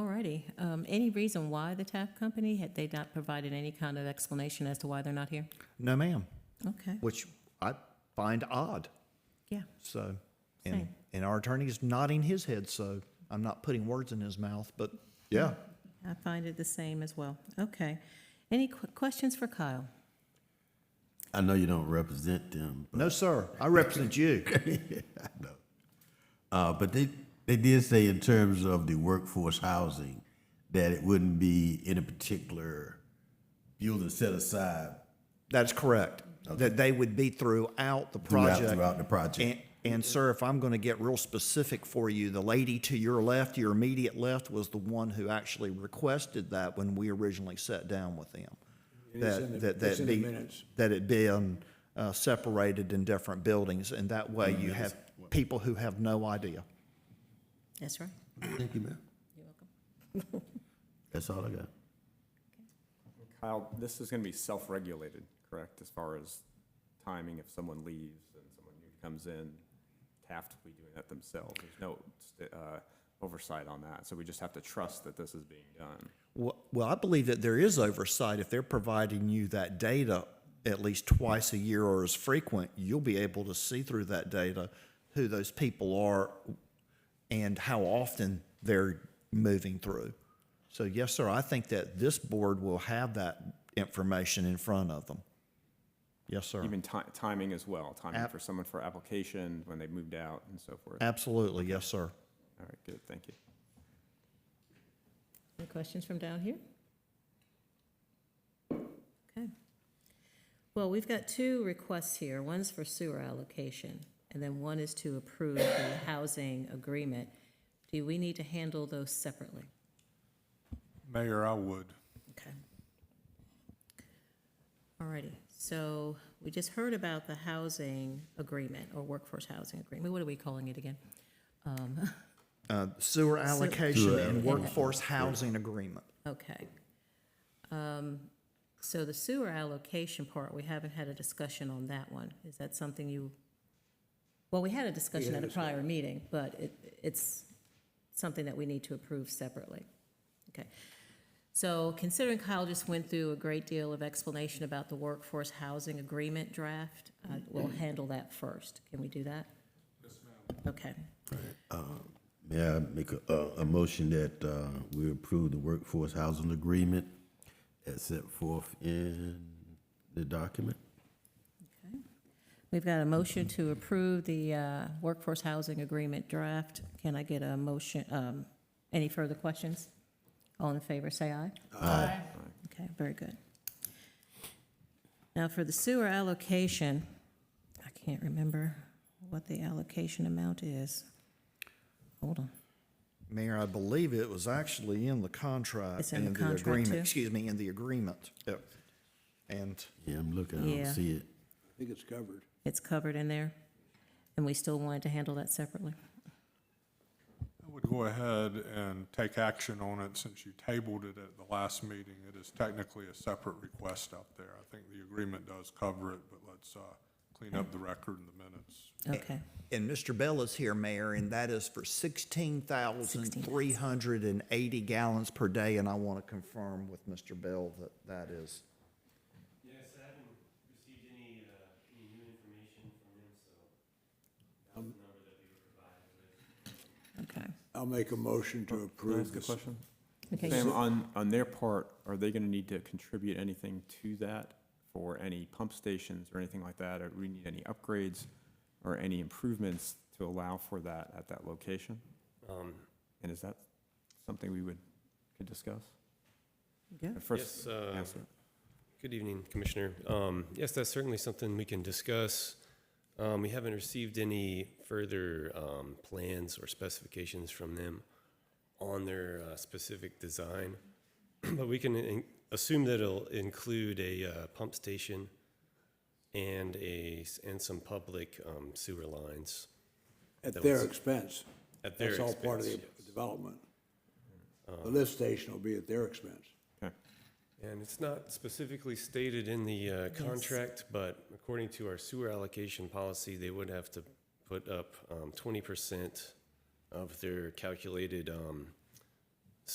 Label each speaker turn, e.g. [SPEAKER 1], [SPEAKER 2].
[SPEAKER 1] righty. Um, Any reason why the TAF company, had they not provided any kind of explanation as to why they're not here?
[SPEAKER 2] No, ma'am,
[SPEAKER 1] Okay,
[SPEAKER 2] which I find odd.
[SPEAKER 1] yeah,
[SPEAKER 2] So, and,
[SPEAKER 1] Same.
[SPEAKER 2] and our attorney's nodding his head, so I'm not putting words in his mouth, but yeah.
[SPEAKER 1] I find it the same as well. Okay. Any qu- questions for Kyle?
[SPEAKER 3] I know you don't represent them, but,
[SPEAKER 2] No, sir, I represent you.
[SPEAKER 3] uh, but they, they did say in terms of the workforce housing, that it wouldn't be in a particular building set aside
[SPEAKER 2] That's correct. That they would be throughout the
[SPEAKER 3] throughout,
[SPEAKER 2] project.
[SPEAKER 3] throughout the
[SPEAKER 2] And,
[SPEAKER 3] project.
[SPEAKER 2] and sir, if I'm going to get real specific for you, the lady to your left, your immediate left, was the one who actually requested that when we originally sat down with them.
[SPEAKER 4] is
[SPEAKER 2] That-
[SPEAKER 4] in the-
[SPEAKER 2] that- that
[SPEAKER 4] it's in the
[SPEAKER 2] be-
[SPEAKER 4] minutes.
[SPEAKER 2] That it be um, uh, separated in different buildings, and that way you have people who have no idea.
[SPEAKER 1] That's right.
[SPEAKER 3] Thank you, ma'am. You're welcome. That's all I got.
[SPEAKER 5] Kyle, this is going to be self-regulated, correct, as far as timing, if someone leaves and someone new comes in, Taft will be doing that themselves. There's no uh, oversight on that, so we just have to trust that this is being done.
[SPEAKER 2] Well, well, I believe that there is oversight. If they're providing you that data at least twice a year or as frequent, you'll be able to see through that data who those people are and how often they're moving through. So, yes, sir, I think that this board will have that information in front of them. Yes, sir.
[SPEAKER 5] Even ti- timing as well, timing
[SPEAKER 2] Ab-
[SPEAKER 5] for someone for application, when they moved out and so forth. All
[SPEAKER 2] Absolutely, yes, sir.
[SPEAKER 5] right, good, thank you.
[SPEAKER 1] Any questions from down here? Okay. Well, we've got two requests here. One's for sewer allocation, and then one is to approve the housing agreement. Do we need to handle those separately?
[SPEAKER 4] Mayor, I would.
[SPEAKER 1] Okay. All righty, so we just heard about the housing agreement, or workforce housing agreement, what are we calling it again? Um,
[SPEAKER 2] Uh, sewer allocation
[SPEAKER 3] Sewer
[SPEAKER 2] and
[SPEAKER 3] allocation.
[SPEAKER 2] workforce housing agreement.
[SPEAKER 1] Okay. Um, So the sewer allocation part, we haven't had a discussion on that one. Is that something you, well, we had a discussion at a prior meeting, but it, it's something that we need to approve separately. Okay. So considering Kyle just went through a great deal of explanation about the workforce housing agreement draft, uh, we'll handle that first. Can we do that? Yes, ma'am. Okay.
[SPEAKER 3] May I make a, a, a motion that, uh, we approve the workforce housing agreement as set forth in the document?
[SPEAKER 1] We've got a motion to approve the uh, workforce housing agreement draft. Can I get a motion, um, any further questions? All in favor, say aye. Aye. Okay, very good. Now, for the sewer allocation, I can't remember what the allocation amount is. Hold on.
[SPEAKER 2] Mayor, I believe it was actually in the contract.
[SPEAKER 1] It's in the
[SPEAKER 2] and
[SPEAKER 1] contract,
[SPEAKER 2] agreement-
[SPEAKER 1] too?
[SPEAKER 2] Excuse me, in the agreement. Yep. And
[SPEAKER 3] Yeah, I'm looking, I
[SPEAKER 1] Yeah.
[SPEAKER 3] don't see it.
[SPEAKER 4] I think it's covered.
[SPEAKER 1] It's covered in there, and we still wanted to handle that separately.
[SPEAKER 6] I would go ahead and take action on it since you tabled it at the last meeting. It is technically a separate request out there. I think the agreement does cover it, but let's uh, clean up the record in the minutes.
[SPEAKER 1] Okay,
[SPEAKER 2] And Mr. Bell is here, Mayor, and that is for sixteen thousand three hundred and eighty gallons per day, and I want to confirm with Mr. Bell that that is.
[SPEAKER 7] Yes, I haven't received any, uh, any new information from him, so that was the number that we were provided with.
[SPEAKER 1] okay.
[SPEAKER 4] I'll make a motion to
[SPEAKER 5] Can I
[SPEAKER 4] approve
[SPEAKER 5] ask a
[SPEAKER 4] this.
[SPEAKER 5] question?
[SPEAKER 1] Okay,
[SPEAKER 5] Sam, on, on their part, are they going to need to contribute anything to that for any pump stations or anything like that? Or do we need any upgrades or any improvements to allow for that at that location?
[SPEAKER 7] Um,
[SPEAKER 5] And is that something we would, could discuss?
[SPEAKER 1] Yeah.
[SPEAKER 5] Uh, First,
[SPEAKER 7] Yes, uh,
[SPEAKER 5] answer.
[SPEAKER 7] Good evening, Commissioner. Um, Yes, that's certainly something we can discuss. Um, We haven't received any further um, plans or specifications from them on their uh, specific design, but we can in- assume that it'll include a uh, pump station and a, s- and some public um, sewer lines.
[SPEAKER 4] At
[SPEAKER 7] That
[SPEAKER 4] their
[SPEAKER 7] was-
[SPEAKER 4] expense.
[SPEAKER 7] at their
[SPEAKER 4] That's all part of the
[SPEAKER 7] expense, yes. Uh,
[SPEAKER 4] development. The lift station will be at their expense.
[SPEAKER 5] Okay.
[SPEAKER 7] And it's not specifically stated in the uh, contract, but according to our sewer allocation policy, they would have to put up um, 20% of their calculated um,